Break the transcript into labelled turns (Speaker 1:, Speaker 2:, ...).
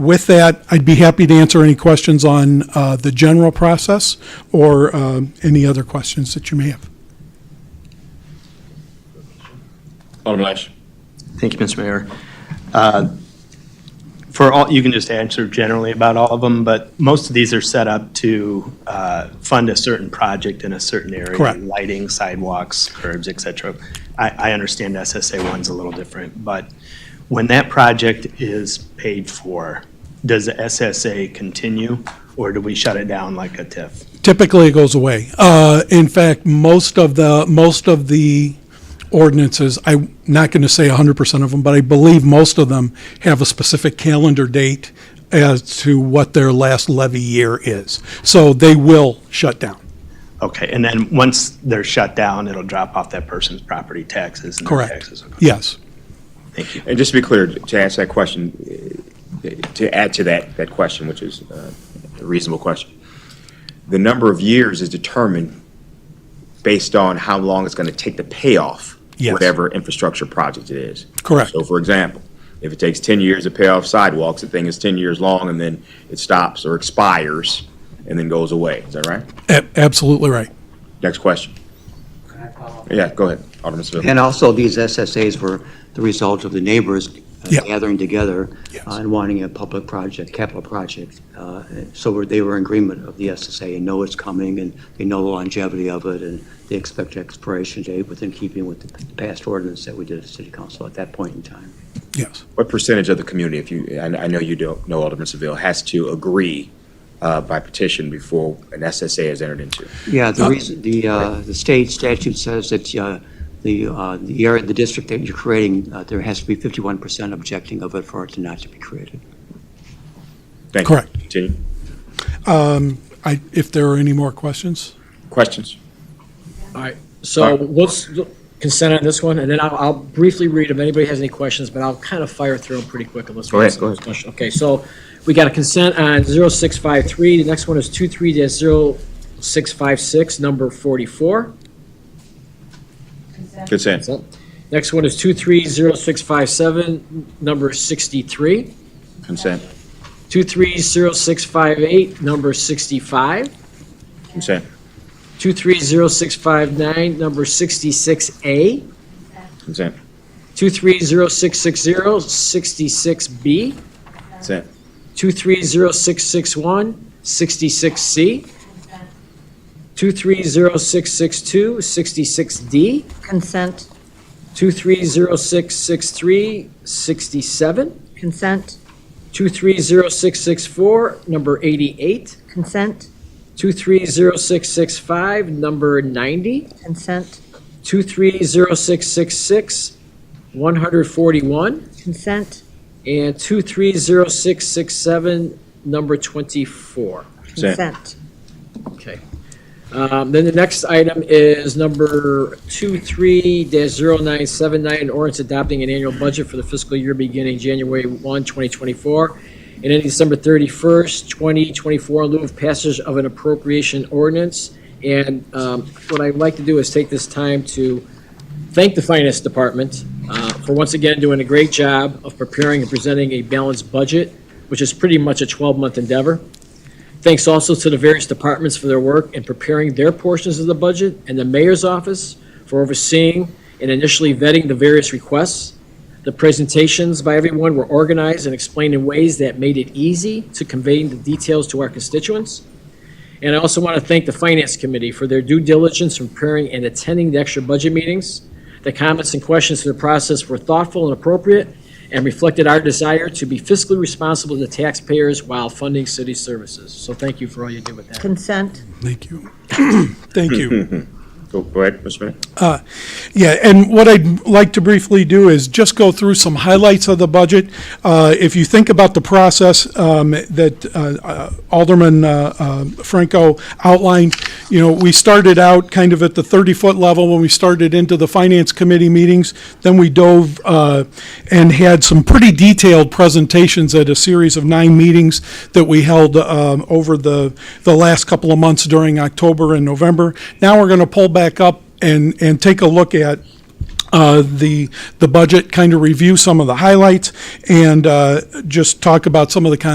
Speaker 1: With that, I'd be happy to answer any questions on uh, the general process or um, any other questions that you may have.
Speaker 2: Alderman Lash.
Speaker 3: Thank you, Mr. Mayor. Uh, For all, you can just answer generally about all of them, but most of these are set up to uh, fund a certain project in a certain area.
Speaker 1: Correct.
Speaker 3: Lighting, sidewalks, curbs, et cetera. I, I understand SSA one's a little different, but when that project is paid for, does the SSA continue, or do we shut it down like a TIF?
Speaker 1: Typically, it goes away. Uh, In fact, most of the, most of the ordinances, I'm not going to say 100% of them, but I believe most of them have a specific calendar date as to what their last levy year is. So they will shut down.
Speaker 3: Okay, and then once they're shut down, it'll drop off that person's property taxes and their
Speaker 1: Correct.
Speaker 3: taxes. Okay,
Speaker 1: Yes.
Speaker 3: Thank you.
Speaker 2: And just to be clear, to answer that question, eh, to add to that, that question, which is uh, a reasonable question, the number of years is determined based on how long it's going to take to pay off
Speaker 1: Yes.
Speaker 2: whatever infrastructure project it is.
Speaker 1: Correct.
Speaker 2: So for example, if it takes 10 years to pay off sidewalks, the thing is 10 years long and then it stops or expires and then goes away. Is that right?
Speaker 1: A- Absolutely right.
Speaker 2: Next question. Yeah, go ahead, Alderman Seville.
Speaker 4: And also, these SSAs were the result of the neighbors uh,
Speaker 1: Yeah.
Speaker 4: gathering together
Speaker 1: Yes.
Speaker 4: uh, and wanting a public project, capital project. Uh, So were- they were in agreement of the SSA and know it's coming, and they know the longevity of it, and they expect expiration date within keeping with the past ordinance that we did at city council at that point in time.
Speaker 1: Yes.
Speaker 2: What percentage of the community, if you, I, I know you don't know Alderman Seville, has to agree uh, by petition before an SSA is entered into?
Speaker 4: Yeah,
Speaker 1: Uh,
Speaker 4: the reason, the, uh, the state statute says that uh, the, uh, the area, the district that you're creating, uh, there has to be 51% objecting of it for it to not to be created.
Speaker 2: Thank you.
Speaker 1: Correct.
Speaker 2: Continue.
Speaker 1: Um, I, if there are any more questions?
Speaker 2: Questions?
Speaker 5: So what's consent on this one, and then I'll, I'll briefly read if anybody has any questions, but I'll kind of fire through them pretty quick unless. we
Speaker 2: Go
Speaker 5: have
Speaker 2: ahead,
Speaker 5: some
Speaker 2: go ahead.
Speaker 5: discussion. Okay, so we got a consent on 0653, the next one is 23-0656, number 44.
Speaker 2: Consent.
Speaker 5: Next one is 230657, number 63,
Speaker 2: Consent.
Speaker 5: 230658, number 65,
Speaker 2: Consent.
Speaker 5: 230659, number 66A,
Speaker 2: Consent.
Speaker 5: 230660, 66B,
Speaker 2: Consent.
Speaker 5: 230661, 66C, 230662, 66D,
Speaker 6: Consent,
Speaker 5: 230663, 67,
Speaker 6: consent,
Speaker 5: 230664, number 88,
Speaker 6: consent,
Speaker 5: 230665, number 90,
Speaker 6: consent,
Speaker 5: 230666, 141,
Speaker 6: consent,
Speaker 5: and 230667, number 24.
Speaker 6: consent,
Speaker 5: Okay. Um, Then the next item is number 23-0979, an ordinance adopting an annual budget for the fiscal year beginning January 1, 2024, and ending December 31st, 2024, in lieu of passage of an appropriation ordinance. And um, what I'd like to do is take this time to thank the Finance Department uh, for once again doing a great job of preparing and presenting a balanced budget, which is pretty much a 12-month endeavor. Thanks also to the various departments for their work in preparing their portions of the budget and the mayor's office for overseeing and initially vetting the various requests. The presentations by everyone were organized and explained in ways that made it easy to convey the details to our constituents. And I also want to thank the Finance Committee for their due diligence in preparing and attending the extra budget meetings. The comments and questions through the process were thoughtful and appropriate and reflected our desire to be fiscally responsible to taxpayers while funding city services. So thank you for all you do with that.
Speaker 6: consent,
Speaker 1: Thank you. Thank you.
Speaker 2: Go go ahead, Mr. Mayor.
Speaker 1: Yeah, and what I'd like to briefly do is just go through some highlights of the budget. Uh, If you think about the process um, that uh, uh, Alderman uh, uh, Franco outlined, you know, we started out kind of at the 30-foot level when we started into the Finance Committee meetings. Then we dove uh, and had some pretty detailed presentations at a series of nine meetings that we held um, over the, the last couple of months during October and November. Now we're going to pull back up and, and take a look at uh, the, the budget, kind of review some of the highlights, and uh, just talk about some of the con-